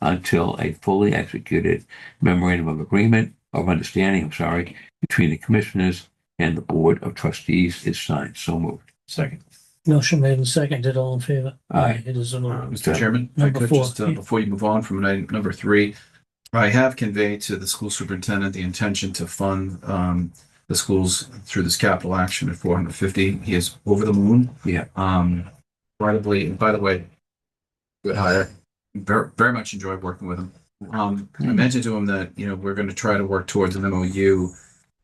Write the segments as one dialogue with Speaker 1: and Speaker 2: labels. Speaker 1: until a fully executed memorandum of agreement of understanding, I'm sorry, between the commissioners and the board of trustees is signed. So moved.
Speaker 2: Second.
Speaker 3: Motion made and seconded, all in favor?
Speaker 1: Aye. Um,
Speaker 3: It is a
Speaker 2: Uh,
Speaker 3: vote.
Speaker 2: Mr. Chairman, if I
Speaker 3: Number
Speaker 2: could
Speaker 3: four.
Speaker 2: just, uh, before you move on from item number three, I have conveyed to the school superintendent the intention to fund, um, the schools through this capital action at four hundred fifty. He is over the moon.
Speaker 1: Yeah.
Speaker 2: Um, incredibly, and by the way, good hire. Very, very much enjoyed working with him. Um, I mentioned to him that, you know, we're going to try to work towards an MOU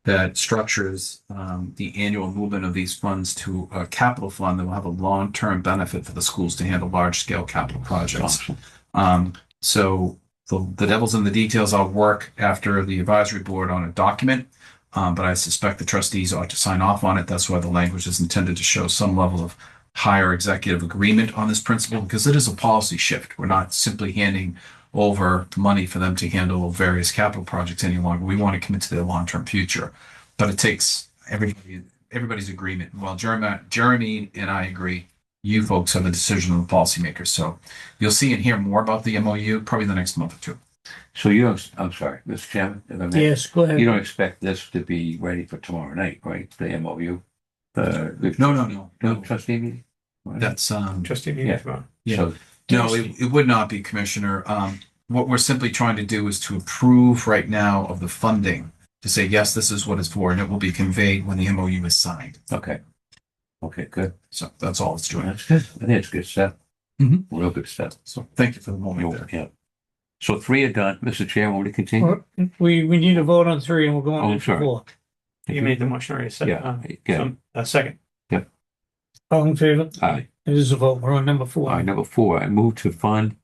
Speaker 2: that structures um, the annual movement of these funds to a capital fund that will have a long-term benefit for the schools to handle large-scale capital projects.
Speaker 1: Awesome.
Speaker 2: Um, so the, the devil's in the details. I'll work after the advisory board on a document. Um, but I suspect the trustees ought to sign off on it. That's why the language is intended to show some level of higher executive agreement on this principle, because it is a policy shift. We're not simply handing over money for them to handle various capital projects any longer. We want to commit to their long-term future. But it takes everybody, everybody's agreement. Well, Jeremy, Jeremy and I agree. You folks are the decision of the policymakers. So You'll see and hear more about the MOU probably in the next month or two.
Speaker 1: So you don't, I'm sorry, Mr. Chairman, if I may.
Speaker 3: Yes, go
Speaker 1: You
Speaker 3: ahead.
Speaker 1: don't expect this to be ready for tomorrow night, right? The MOU? The, the
Speaker 2: No, no, no, no.
Speaker 1: trustee meeting?
Speaker 2: That's, um,
Speaker 4: Trustee
Speaker 1: Yeah.
Speaker 4: meeting tomorrow.
Speaker 2: yeah.
Speaker 1: So
Speaker 2: no, it, it would not be, Commissioner. Um, what we're simply trying to do is to approve right now of the funding to say, yes, this is what it's for, and it will be conveyed when the MOU is signed.
Speaker 1: Okay. Okay, good.
Speaker 2: So that's all it's doing.
Speaker 1: That's good. I think it's good stuff.
Speaker 2: Mhm.
Speaker 4: Mm-hmm.
Speaker 1: Real good stuff.
Speaker 2: So thank you for the moment there.
Speaker 1: Yeah. So three are done. Mr. Chair, will you continue?
Speaker 3: Or- We, we need a vote on three and we'll go
Speaker 1: Oh,
Speaker 3: on to
Speaker 1: sorry.
Speaker 3: four.
Speaker 4: You made the motion already, so.
Speaker 1: Yeah,
Speaker 4: um,
Speaker 1: yeah.
Speaker 4: so, uh, second,
Speaker 3: All in favor?
Speaker 1: All right.
Speaker 3: It is a vote. We're on number
Speaker 1: All
Speaker 3: four.
Speaker 1: right, number four, I move to fund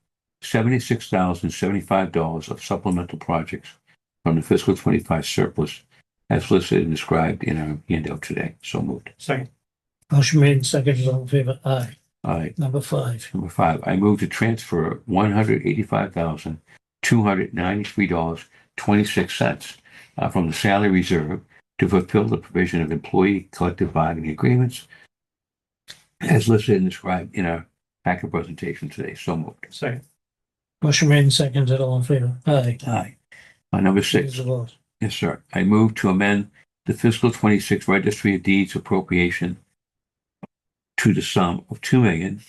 Speaker 1: seventy-six thousand seventy-five dollars of supplemental projects from the fiscal twenty-five surplus as listed and described in our handout today. So moved.
Speaker 4: second,
Speaker 3: Motion made and seconded, all in favor? Aye.
Speaker 1: All right.
Speaker 3: Number five.
Speaker 1: Number five, I move to transfer one hundred eighty-five thousand, two hundred ninety-three dollars, twenty-six cents uh, from the salary reserve to fulfill the provision of employee collective bargaining agreements as listed and described in our packet presentation today. So moved.
Speaker 4: second,
Speaker 3: Motion made and seconded, all in favor? Aye.
Speaker 1: Aye. Uh, number
Speaker 3: It
Speaker 1: six,
Speaker 3: is a vote.
Speaker 1: yes, sir. I move to amend the fiscal twenty-six registry of deeds appropriation to the sum of two million,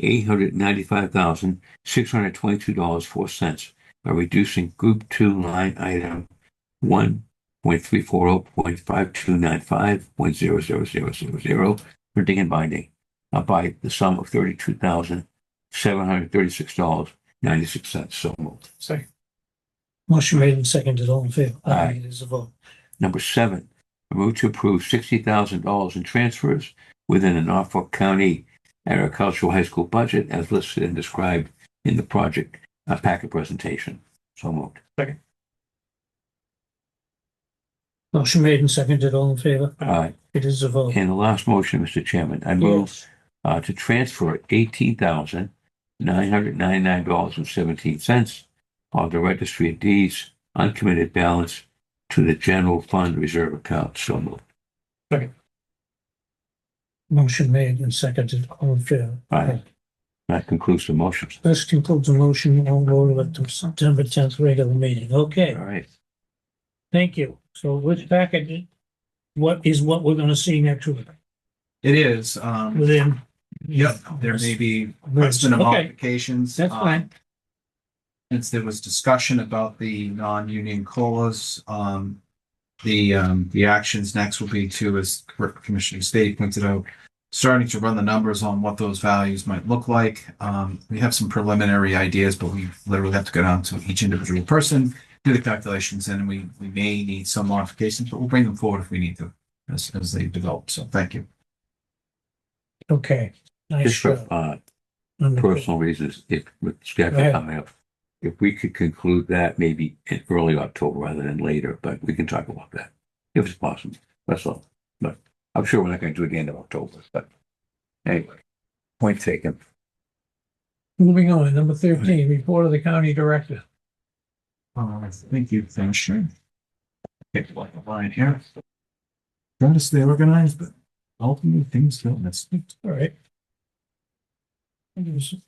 Speaker 1: eight hundred ninety-five thousand, six hundred twenty-two dollars, four cents by reducing group two line item one point three four oh point five two nine five point zero zero zero zero zero printing and binding uh, by the sum of thirty-two thousand, seven hundred thirty-six dollars, ninety-six cents. So moved.
Speaker 4: second,
Speaker 3: Motion made and seconded, all in favor?
Speaker 1: Aye.
Speaker 3: It is a vote.
Speaker 1: Number seven, I move to approve sixty thousand dollars in transfers within the Norfolk County Agricultural High School budget as listed and described in the project uh, packet presentation. So moved.
Speaker 3: Motion made and seconded, all in favor?
Speaker 4: Aye.
Speaker 1: Uh,
Speaker 3: It is a vote.
Speaker 1: and the last motion, Mr. Chairman, I move
Speaker 3: Yes.
Speaker 1: uh, to transfer eighteen thousand nine hundred ninety-nine dollars and seventeen cents of the Registry of Deeds uncommitted balance to the general fund reserve account. So moved.
Speaker 3: Motion made and seconded, all in favor?
Speaker 1: Aye. That concludes the motions.
Speaker 3: This concludes the motion. We'll go to the September tenth regular meeting. Okay.
Speaker 1: All right.
Speaker 3: Thank you. So which package, what is what we're gonna see next week
Speaker 2: It is, um,
Speaker 3: within?
Speaker 2: yep, there may be question of
Speaker 3: Okay,
Speaker 2: modifications.
Speaker 3: that's
Speaker 2: um,
Speaker 3: fine.
Speaker 2: since there was discussion about the non-union colas, um, the, um, the actions next will be to, as Commissioner State pointed out, starting to run the numbers on what those values might look like. Um, we have some preliminary ideas, but we literally have to go down to each individual person, do the calculations, and we, we may need some modifications, but we'll bring them forward if we need to as, as they develop. So thank you.
Speaker 3: Okay. Nice
Speaker 1: Just for,
Speaker 3: job.
Speaker 1: uh,
Speaker 3: Wonderful.
Speaker 1: personal reasons, if with
Speaker 3: Go
Speaker 1: schedule
Speaker 3: ahead.
Speaker 1: coming up, if we could conclude that maybe in early October rather than later, but we can talk about that if it's possible. That's all. But I'm sure we're not going to do it at the end of October, but anyway, point taken.
Speaker 3: Moving on, number thirteen, report of the county director.
Speaker 2: Uh, thank you, Commissioner. Get the line here. Trying to stay organized, but ultimately things don't. That's
Speaker 3: All right. It is-